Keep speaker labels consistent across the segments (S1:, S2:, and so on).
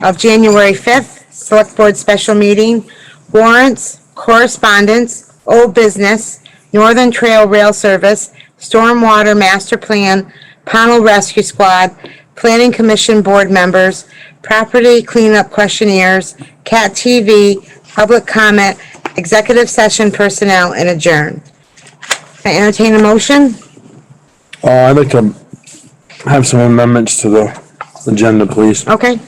S1: of January 5th, Select Board Special Meeting, warrants, correspondence, old business, Northern Trail Rail Service, Stormwater Master Plan, Pownell Rescue Squad, Planning Commission Board Members, Property Cleanup Questionnaires, Cat TV, Public Comment, Executive Session Personnel, and Adjourn. Can I entertain a motion?
S2: Uh, I'd like to have some amendments to the agenda, please.
S1: Okay,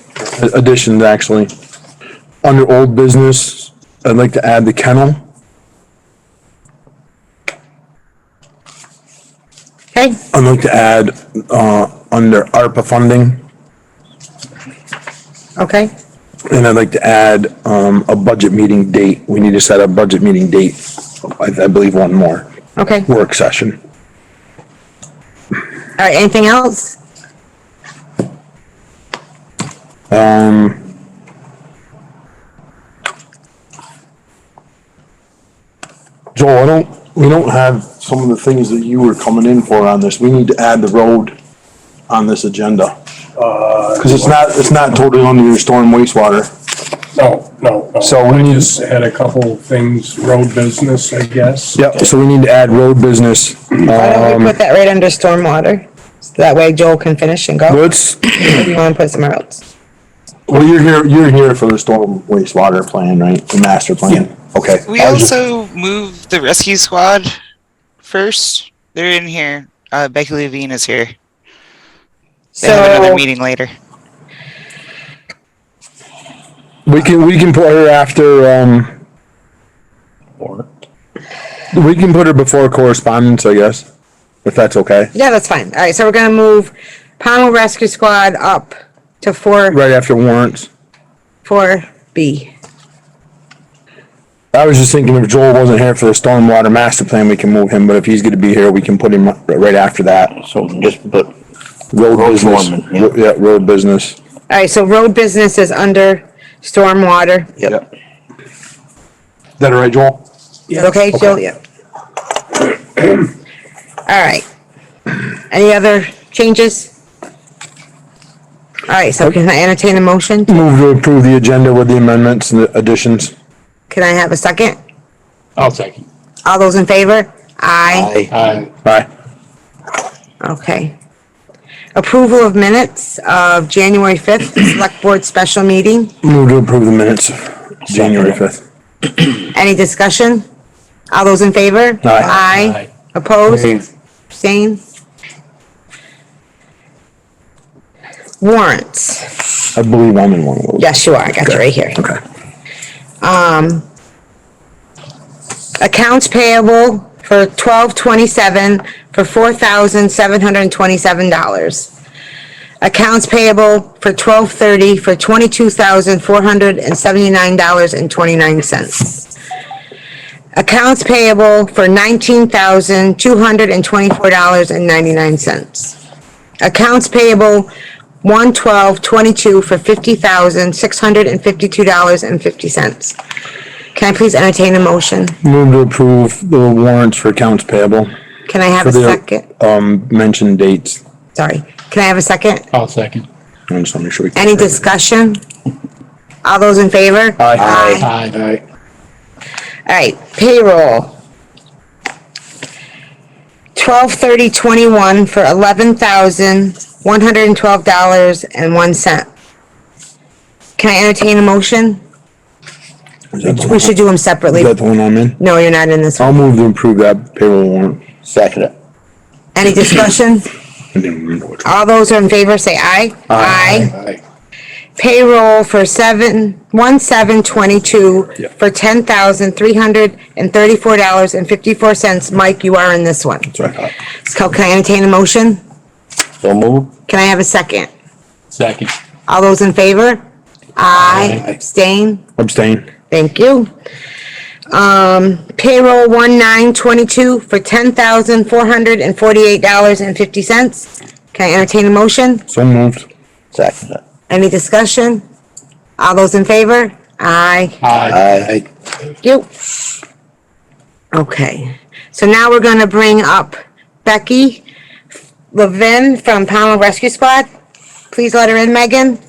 S2: Additions, actually. Under old business, I'd like to add the kennel.
S1: okay,
S2: I'd like to add, uh, under ARPA funding,
S1: okay,
S2: and I'd like to add, um, a budget meeting date. We need to set a budget meeting date. I, I believe one more
S1: okay. All
S2: work session.
S1: right, anything else?
S2: Joel, I don't, we don't have some of the things that you were coming in for on this. We need to add the road on this agenda. Cause it's not, it's not totally under your storm wastewater.
S3: No, no, no.
S2: So we
S3: I
S2: need-
S3: just had a couple things, road business, I guess.
S2: Yep, so we need to add road business.
S1: Why don't we
S2: Um,
S1: put that right under stormwater? So that way Joel can finish and go,
S2: what's,
S1: if you wanna put it somewhere else.
S2: well, you're here, you're here for the storm wastewater plan, right? The master plan? Okay.
S4: We
S2: I was just-
S4: also move the rescue squad first. They're in here. Uh, Becky Levine is here. They have another
S1: So,
S4: meeting later.
S2: We can, we can put her after, um, we can put her before correspondence, I guess, if that's okay.
S1: yeah, that's fine. All right, so we're gonna move Pownell Rescue Squad up to four,
S2: Right after warrants.
S1: four B.
S2: I was just thinking if Joel wasn't here for the stormwater master plan, we can move him, but if he's gonna be here, we can put him r- right after that.
S5: So just put,
S2: Road
S5: Road
S2: business,
S5: foreman, yeah.
S2: Ro- yeah, road business.
S1: All right, so road business is under stormwater. Is
S5: yep,
S2: Is that all right, Joel?
S1: it Okay, Joel, yeah. All right. Any other changes? All right, so can I entertain a motion?
S2: Move to approve the agenda with the amendments and the additions.
S1: Can I have a second?
S6: I'll second.
S1: All those in favor? Aye.
S5: aye,
S6: Aye.
S2: Bye.
S1: Okay. Approval of minutes of January 5th, Select Board Special Meeting.
S2: Move to approve the minutes, of January fifth.
S1: Any discussion? All those in favor? Aye.
S6: Aye.
S1: Opposed? Abstain? Warrants.
S2: I believe I'm in one of those.
S1: Yes, you are. I got you right here. Um,
S2: Okay.
S1: Accounts payable for 1227 for $4,727. Accounts payable for 1230 for $22,479.29. Accounts payable for $19,224.99. Accounts payable 11222 for $50,652.50. Can I please entertain a motion?
S2: Move to approve the warrants for accounts payable
S1: Can I have
S2: for
S1: a
S2: the,
S1: second?
S2: um, mentioned dates.
S1: Sorry. Can I have a second?
S6: I'll second.
S2: I'm just wanna make sure we.
S1: Any discussion? All those in favor?
S2: Aye.
S1: All
S6: Aye.
S1: right, payroll. Twelve thirty twenty-one for eleven thousand, one hundred and twelve dollars and one cent. Can I entertain a motion?
S2: Is that the
S1: We
S2: one-
S1: should do them separately.
S2: is that the one I'm in?
S1: No, you're not in this one.
S2: I'll move to approve that payroll warrant.
S5: second it,
S1: Any discussion?
S2: I didn't remember which one.
S1: All those in favor say aye. Aye.
S6: Aye.
S1: payroll for seven, one seven twenty-two for ten thousand three hundred and thirty-four dollars and fifty-four cents. Mike, you are in this one.
S2: That's what I thought.
S1: So can I entertain a motion?
S5: so move,
S1: Can I have a second?
S6: Second.
S1: All those in favor? Aye. Abstain?
S2: Abstain.
S1: Thank you. Um, payroll one nine twenty-two for ten thousand four hundred and forty-eight dollars and fifty cents. Can I entertain a motion?
S2: So moved.
S5: second it,
S1: Any discussion? All those in favor? Aye.
S6: Aye.
S5: aye,
S1: Yep. Okay, so now we're gonna bring up Becky Levin from Pownell Rescue Squad. Please let her in, Megan.